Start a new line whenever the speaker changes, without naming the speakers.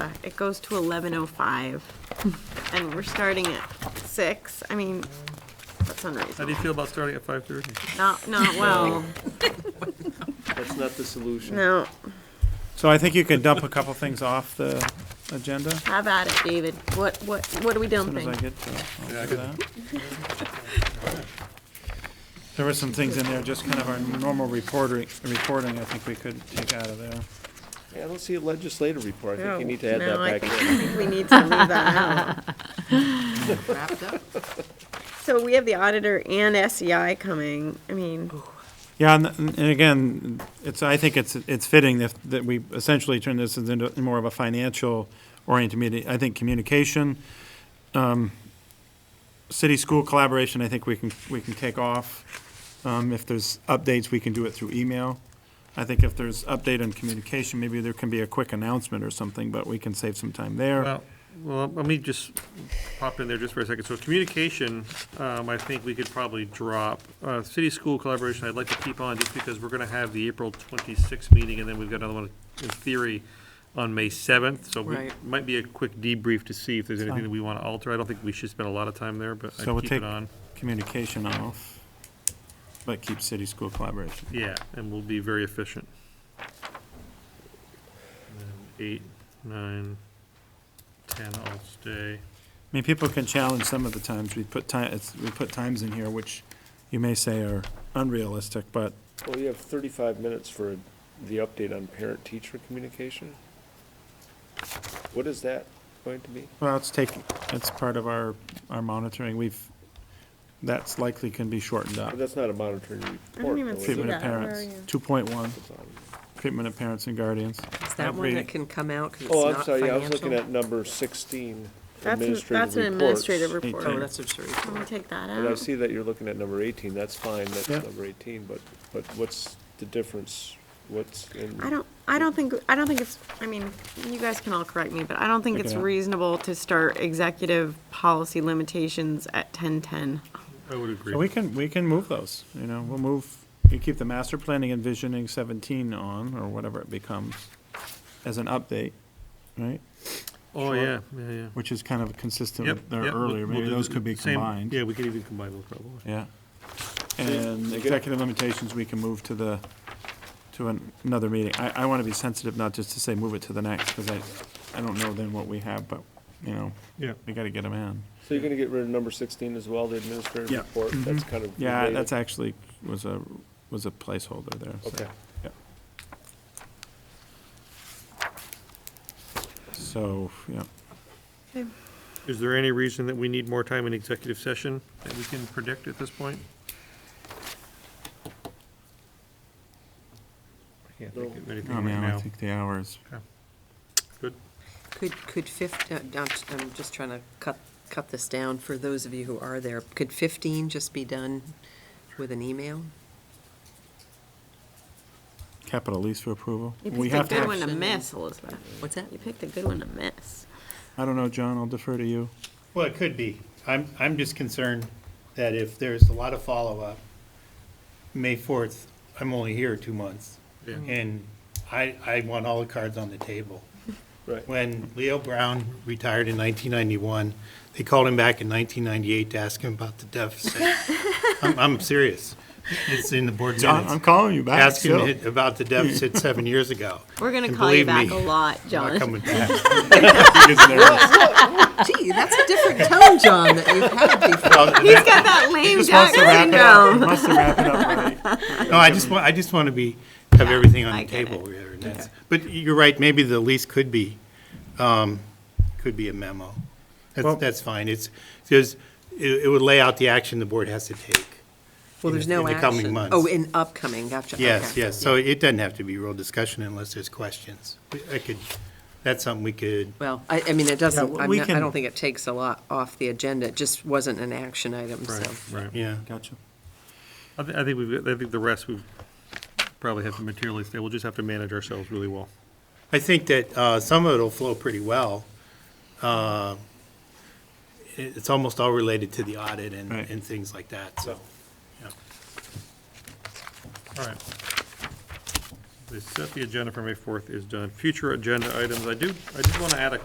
Uh, it goes to eleven oh five, and we're starting at six, I mean, that's
How do you
unreasonable.
feel about starting at five thirty?
Not, not well,
That's not the solution.
no,
So I think you could dump a couple things off the agenda as
have at it, David, what, what, what are we
soon as
dumping?
I get to
Yeah, I
all of
could-
that. There were some things in there, just kind of our normal reporting, reporting, I think we could take out of there.
Yeah, I don't see a legislative report. I think you
No.
need to add
No, I
that back
think-
in.
I think We need to leave that out.
wrapped up.
So we have the auditor and SEI coming, I mean,
Yeah, and, and again, it's, I think it's, it's fitting that, that we essentially turn this into more of a financial oriented meeting. I think communication, um, city-school collaboration, I think we can, we can take off. Um, if there's updates, we can do it through email. I think if there's update on communication, maybe there can be a quick announcement or something, but we can save some time there.
Well, well, let me just pop in there just for a second. So communication, um, I think we could probably drop. Uh, city-school collaboration, I'd like to keep on just because we're gonna have the April twenty-sixth meeting, and then we've got another one in theory on May seventh, so it
Right.
might be a quick debrief to see if there's anything
Fine.
that we wanna alter. I don't think we should spend a lot of time there, but
So
I'd
we'll
keep it
take-
on.
Communication off, but keep city-school collaboration.
Yeah, and we'll be very efficient. And then Eight, nine, ten, I'll stay.
I mean, people can challenge some of the times, we put ti, it's, we put times in here which you may say are unrealistic, but
Well, you have thirty-five minutes for the update on parent-teacher communication. What is that going to be?
Well, it's taking, it's part of our, our monitoring, we've, that's likely can be shortened up.
But that's not a monitoring report.
I don't even
though, is
see
Treatment
it?
of
that. Where
parents,
are you?
two point one,
It's on-
treatment of parents and guardians.
Is that one that can come out because it's
Oh, I'm
not
sorry, yeah, I was looking
financial?
at number sixteen,
that's, an-
administrative
that's an administrative report.
reports.
Eighteen.
Oh,
Can
that's what you're
we
referring to.
take that
And I
out?
see that you're looking at number eighteen, that's fine, that's
Yeah.
number eighteen, but, but what's the difference? What's in?
I don't, I don't think, I don't think it's, I mean, you guys can all correct me, but I don't think
Take it
it's
out.
reasonable to start executive policy limitations at ten-ten.
I would agree.
So we can, we can move those, you know, we'll move, you keep the master planning and visioning seventeen on, or whatever it becomes, as an update, right?
Oh, yeah, yeah, yeah.
Which is kind of consistent
Yep,
with their
yep, we'll-
earlier,
we'll
maybe
do
those
the
could be
same-
combined.
Yeah, we could even combine those probably.
Yeah.
you
And
good?
executive limitations, we can move to the, to an- another meeting. I, I want to be sensitive, not just to say move it to the next, because I, I don't know then what we have, but, you know,
Yeah.
we got to get them in.
So you're gonna get rid of number sixteen as well, the administrative
Yeah. Mm-hmm.
report, that's kind of.
Yeah,
related.
that's actually, was a, was a placeholder there. so-
Okay.
So, yeah.
Is there any reason that we need more time in executive session that we can predict at this point? I can't think of anything
Oh,
right
man, I
now.
think the hours.
Good.
Could, could fif, uh, I'm just- I'm just trying to cut, cut this down for those of you who are there. Could 15 just be done with an email?
Capital lease for approval.
You
We have
picked a good
to,
one to
action.
miss, Elizabeth.
What's that?
You picked a good one to miss.
I don't know, John, I'll defer to you.
Well, it could be. I'm, I'm just concerned that if there's a lot of follow-up, May 4th, I'm only here two months.
Yeah.
And I, I want all the cards on the table.
Right.
When Leo Brown retired in 1991, they called him back in 1998 to ask him about the deficit. I'm, I'm serious. It's in the board
John, I'm
minutes.
calling you back,
Ask
still.
him about the deficit seven years ago.
We're gonna
And
call you
believe
back
me,
a lot,
I'm not
John.
coming back.
Gee, that's a different tone, John, that you've had before.
He's got that lame
Just wants
duck
to wrap it up.
syndrome.
Wants to wrap it up already.
No, I just want, I just want to be, have everything on
I
the
get
table. here, and that's- But you're right, maybe the lease could be, um, could be a memo.
Well-
That's, that's fine. It's, because it, it would lay out the action the board has to take.
Well,
in
there's
the-
no action.
In the coming months.
Oh, in upcoming, gotcha.
Yes,
okay.
yes. So it doesn't have to be real discussion unless there's questions. We- I could, that's something we could,
Well, I, I mean, it doesn't,
Yeah,
I'm
we
not- I
can-
don't think it takes a lot off the agenda. It just wasn't an action item, so.
Right.
yeah.
Gotcha.
I thi- I think we've, I think the rest we've probably have to materially stay. We'll just have to manage ourselves really well.
I think that uh, some of it'll flow pretty well. Uh, it- It's almost all related to the audit and,
Right.
and things like that, so.
All right. The set the agenda for May fourth is done. Future agenda items, I do, I did want to add a